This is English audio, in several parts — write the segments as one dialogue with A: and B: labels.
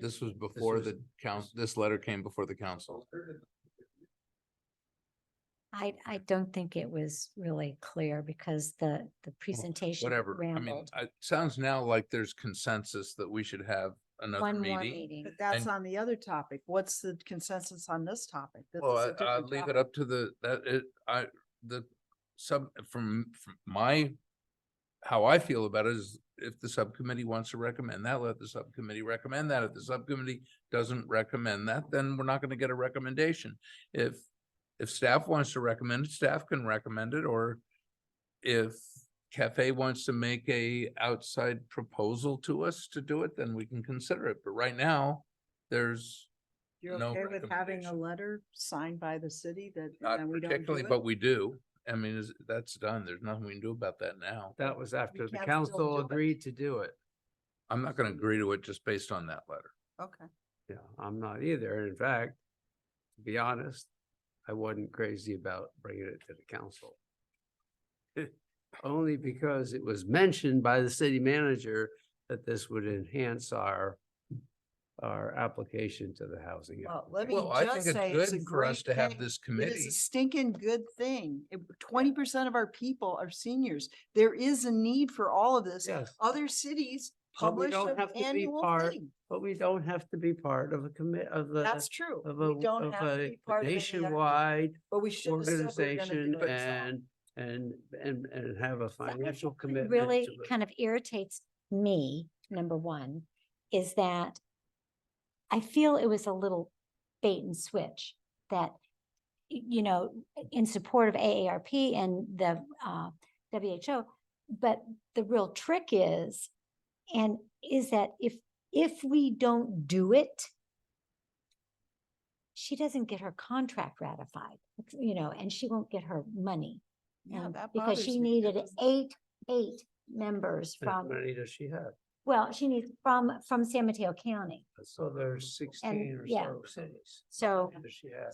A: This was before the council, this letter came before the council.
B: I, I don't think it was really clear because the, the presentation
A: Whatever. I mean,
B: rambled.
A: I- it sounds now like there's consensus that we should have another
B: One more
A: meeting.
B: meeting.
C: But that's
A: And-
C: on the other topic. What's the consensus on this topic? This is a
A: Well, I,
C: different
A: I'd leave it
C: topic.
A: up to the, that, it, I, the sub, from, from my, how I feel about it is if the subcommittee wants to recommend that, let the subcommittee recommend that. If the subcommittee doesn't recommend that, then we're not gonna get a recommendation. If, if staff wants to recommend it, staff can recommend it, or if Cafe wants to make a outside proposal to us to do it, then we can consider it. But right now, there's
C: You're
A: no
C: okay with having a
A: recommendation.
C: letter signed by the city that?
A: Not
C: and we don't do
A: particularly,
C: it?
A: but we do. I mean, is, that's done. There's nothing we can do about that now.
D: That was after the
C: can't still
D: council
C: do it.
D: agreed to do it.
A: I'm not gonna agree to it just based on that letter.
C: Okay.
D: Yeah, I'm not either. In fact, to be honest, I wasn't crazy about bringing it to the council. Only because it was mentioned by the city manager that this would enhance our, our application to the housing.
C: Well, let me
A: Well, I think
C: just say
A: it's
C: it's a
A: good for us
C: great
A: to have
C: thing.
A: this
C: It is
A: committee.
C: a stinking good thing. Twenty percent of our people are seniors. There is a need for all of this.
D: Yes,
C: Other cities
D: But we
C: publish
D: don't
C: an
D: have to be
C: annual
D: part
C: thing.
D: but we don't have to be part of a commit, of the,
C: That's true.
D: of a,
C: We don't
D: of
C: have to
D: a
C: be part of any effort,
D: nationwide
C: But we should. have said we were gonna
D: organization
C: do it ourselves.
D: and, and, and, and have a financial
B: It
D: commitment.
B: Really
D: to it.
B: kind of irritates me, number one, is that I feel it was a little bait and switch that, y- you know, in support of AARP and the uh, WHO. But the real trick is, and is that if, if we don't do it, she doesn't get her contract ratified, you know, and she won't get her money.
C: Yeah,
B: um,
C: that
B: Because she
C: bothers me. That
B: needed
C: doesn't-
B: eight, eight members
D: How
B: from,
D: many does she have?
B: well, she needs from, from San Mateo County.
D: So there's sixteen or
B: yeah.
D: so cities.
B: So
D: Does she have?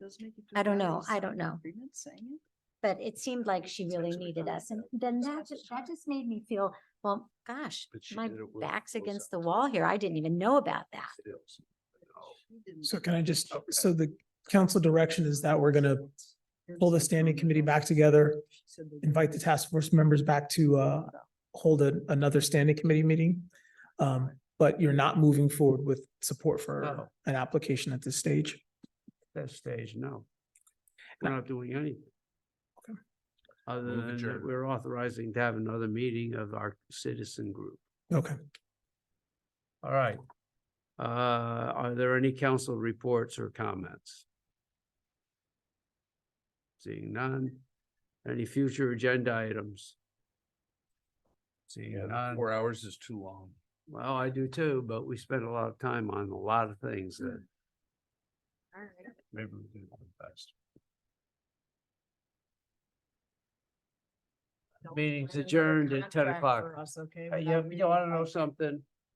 C: does make you
B: I
C: feel
B: don't
C: bad
B: know,
C: as
B: I don't know.
C: agreement saying it.
B: But it seemed like she
D: It's
B: really
D: actually
B: needed
D: done
B: us. And
D: that.
B: then
D: It's
B: that,
D: actually
B: ju- that just made me feel, well, gosh,
D: But she
B: my
D: did it with
B: back's
D: those
B: against the
D: others.
B: wall here. I didn't even know about that.
D: Sales. No.
C: She didn't
E: So
C: do
E: can I
C: it.
E: just,
D: Okay.
E: so the council direction is that we're gonna pull the standing committee back together,
C: She said they
E: invite the
C: didn't.
E: task force members back to uh hold a- another standing committee meeting. Um, but you're not moving forward with support for
D: No.
E: an application at this stage.
D: That stage, no. We're not doing anything.
E: Okay.
D: Other
A: Move
D: than that,
A: adjourned.
D: we're authorizing to have another meeting of our citizen group.
E: Okay.
D: All right. Uh, are there any council reports or comments? Seeing none. Any future agenda items? Seeing none.
A: Four hours is too long.
D: Well, I do too, but we spent a lot of time on a lot of things that
C: All right.
D: maybe we can do best.
C: Don't
D: Meeting's
C: sign another
D: adjourned at 10
C: contract
D: o'clock.
C: for us, Okay.
D: Uh,
C: without
D: Yeah, you
C: reading
D: want to know
C: it.
D: something?